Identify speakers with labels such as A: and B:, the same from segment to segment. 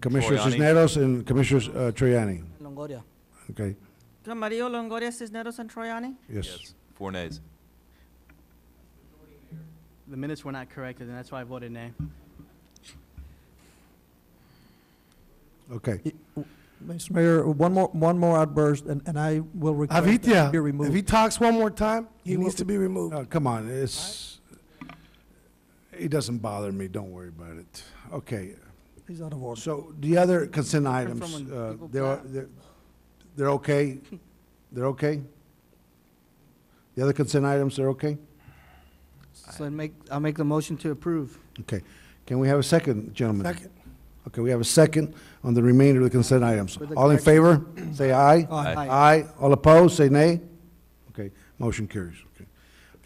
A: Commissioner
B: Troyani.
A: Cisneros and Commissioner uh, Troyani.
C: Longoria.
A: Okay,
D: Camarillo, Longoria, Cisneros, and Troyani?
A: yes.
B: Four nays.
E: The minutes were not corrected, and that's why I voted nay.
A: Okay.
F: Mr. Mayor, one more, one more outburst, and, and I will request that
G: Avitia,
F: he be
G: if he
F: removed.
G: talks one more time, he
F: He
G: needs
F: will-
G: to be removed.
A: No, Oh, come on, it's, it doesn't bother me, don't worry about it. Okay,
F: He's out of order.
A: so the other consent
D: Different
A: items,
D: from when
A: uh,
D: people
A: they're,
D: clap.
A: they're, they're okay? They're okay? The other consent items, they're okay?
C: So I make, I'll make the motion to approve.
A: Okay, can we have a second, gentlemen?
G: Second.
A: Okay, we have a second on the remainder of the consent items.
C: With the
A: All in favor, say
F: Aye.
A: aye.
C: Aye.
A: Aye. All opposed, say nay. Okay, motion carries. Okay.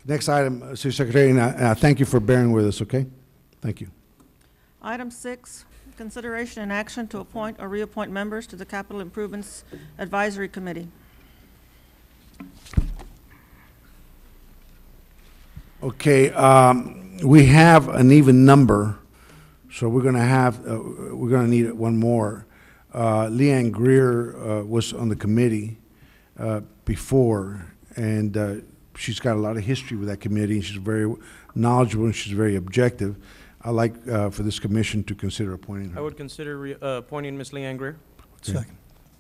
A: Next item, uh, City Secretary, and I, and I thank you for bearing with us, okay? Thank you.
D: Item six, consideration and action to appoint or reappoint members to the Capital Improvements Advisory Committee.
A: Okay, um, we have an even number, so we're gonna have, uh, we're gonna need one more. Uh, Leanne Greer, uh, was on the committee, uh, before, and, uh, she's got a lot of history with that committee, and she's very knowledgeable, and she's very objective. I'd like, uh, for this commission to consider appointing
H: I
A: her.
H: would consider re- uh, appointing Ms. Leanne Greer.
F: Second.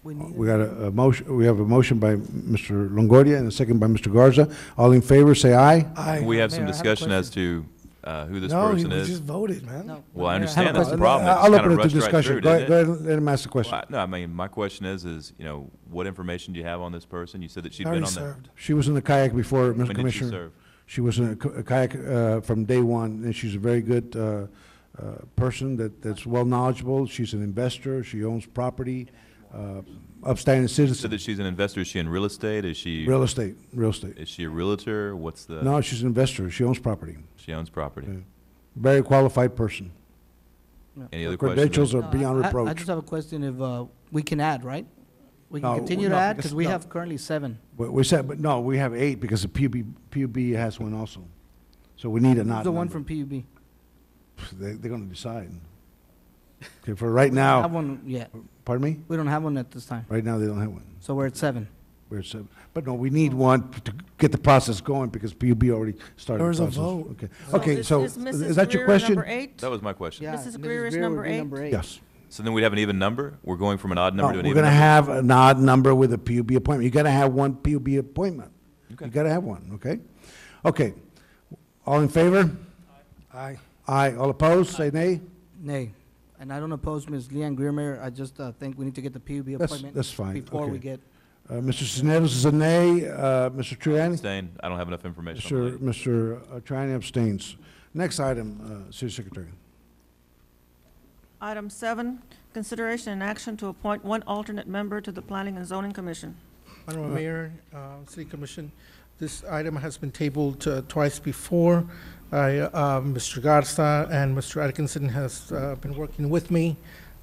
C: We need
A: We got a, a motion, we have a motion by Mr. Longoria and a second by Mr. Garza. All in favor, say aye.
G: Aye.
B: We have some
G: Mayor, I a
B: discussion as to uh, who this
G: No, he
B: person
G: we
B: is.
G: just voted, man.
C: No.
B: Well, I
C: Mayor, I have a
B: understand that's the
A: Uh,
B: problem. It just
A: I'll
B: kinda
A: open it to
B: rushed right
A: discussion.
B: through,
A: Go ahead,
B: didn't
A: go
B: it?
A: ahead and let him ask the question.
B: Well, I- No, I mean, my question is, is, you know, what information do you have on this person? You said that she'd been
G: Already
B: on the.
G: served.
A: She was in the kayak before, Mr.
B: When did she
A: Commissioner.
B: serve?
A: She was in a k- a kayak uh, from day one, and she's a very good uh, uh, person that, that's well knowledgeable. She's an investor, she owns property, uh, upstanding
B: You Said
A: citizen,
B: that she's an investor. Is she in real estate? Is she, uh,
A: real estate, real estate.
B: is she a realtor? What's the,
A: No, she's an investor, she owns property.
B: she owns property.
A: Yeah. Very qualified person.
B: Any
A: Her
B: other
A: Credentials
B: questions?
A: are
C: No, I-
A: beyond
C: I- I
A: reproach.
C: just have a question if uh, we can add, right? We
A: No,
C: can continue to
A: no,
C: add,
A: because-
C: because we
A: no.
C: have currently seven.
A: We- We said, but no, we have eight because the PUB, PUB has one also. So we need an odd
C: The one
A: number.
C: from PUB.
A: They, they're gonna decide. Okay, for right now,
C: Have one yet.
A: pardon me?
C: We don't have one at this time,
A: Right now, they don't have one.
C: so we're at seven.
A: We're so, but no, we need one to get the process going because PUB already started. the
G: There was a
A: process.
G: vote.
A: Okay,
D: So
A: okay,
D: is-
A: so
D: is Mrs.
A: is that your
D: Greer
A: question?
D: number eight?
B: That was my question.
C: Yeah,
D: Mrs.
C: Mrs.
D: Greer is
C: would
D: number
C: be
D: eight.
A: Yes.
B: So then we'd have an even number? We're going from an odd
A: No,
B: number
A: Oh,
B: to
A: We're
B: an even
A: gonna
B: number?
A: have an odd number with a PUB appointment. You gotta have one PUB appointment. You
B: Okay.
A: gotta have one, okay? Okay, all in favor?
G: Aye.
A: Aye, all opposed, say nay?
C: Nay. And I don't oppose Ms. Leanne Greer, Mayor. I just uh, think we need to get the PUB
A: That's-
C: appointment.
A: that's fine.
C: Before
A: Okay.
C: we get,
A: Uh, Mr. Sisnetos is a nay, uh, Mr. Triani?
B: Abstain. I don't have enough information. on the
A: Mr.
B: lady.
A: Mr. Triani abstains. Next item, uh, City Secretary.
D: Item seven, consideration and action to appoint one alternate member to the Planning and Zoning Commission.
G: Honorable Mayor, uh, City Commission, this item has been tabled uh, twice before. I, uh, Mr. Garza and Mr. Atkinson has uh, been working with me.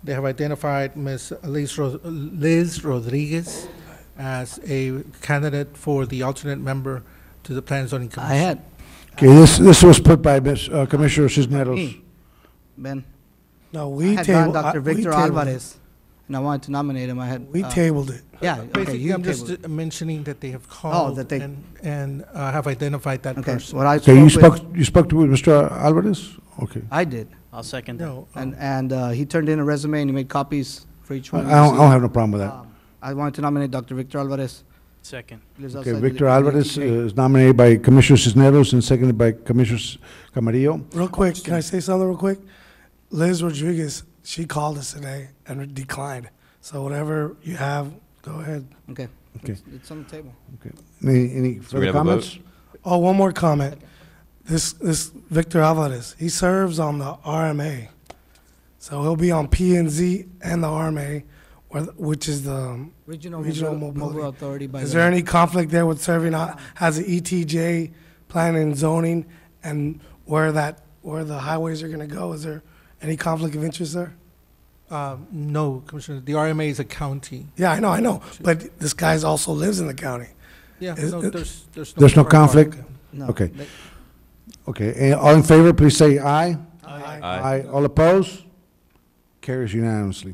G: They have identified Ms. Liz Ro- Liz Rodriguez as a candidate for the alternate member to the Plan Zoning Commission.
C: I had,
A: Okay, this, this was put by Ms. uh, Commissioner Cisneros.
C: Me. Ben,
G: No,
C: I
G: we
C: had gone
G: tabled.
C: Dr. Victor Alvarez, and I wanted to nominate him. I had.
G: We
C: uh,
G: tabled it.
C: Yeah, okay,
G: Basically,
C: you
G: I'm
C: tabled.
G: just uh, mentioning that they have called
C: Oh, that they-
G: and, and uh, have identified that
C: Okay,
G: person.
C: what I
A: Okay, you
C: spoke
A: spoke,
C: with,
A: you spoke to Mr. Alvarez? Okay.
C: I did.
E: I'll second that.
G: No, um,
C: And, and uh, he turned in a resume and he made copies for each
A: Oh. I
C: one.
A: don't, I don't have no problem with that.
C: Um, I wanted to nominate Dr. Victor Alvarez.
E: Second.
C: Lives
A: Okay,
C: outside the-
A: Victor
C: the
A: Alvarez uh,
C: DPJ.
A: is nominated by Commissioner Cisneros and seconded by Commissioner S- Camarillo.
G: real quick, can I say something real quick? Liz Rodriguez, she called us today and declined. So whatever you have, go ahead.
C: Okay.
A: Okay.
C: It's on the table.
A: Any, any
B: we
A: further
B: have a vote?
A: comments?
G: Oh, one more comment. This, this Victor Alvarez, he serves on the RMA. So he'll be on P and Z and the RMA, where- which is the,
C: Regional
G: Regional
C: Mobile Mobile
G: Mobility.
C: Authority by.
G: is
C: the-
G: there any conflict there with serving uh, on, as an ETJ, planning and zoning, and where that, where the highways are gonna go? Is there any conflict of interest there?
I: Um, No, Commissioner, the RMA is a county.
G: Yeah, I know, I know, but this guy's also lives in the county.
I: Yeah,
G: Is-
I: no,
G: it-
I: there's, there's no.
A: There's no conflict?
C: No.
A: Okay.
C: But
A: Okay, eh, all in favor, please say aye.
B: Aye.
A: All opposed? Carries unanimously.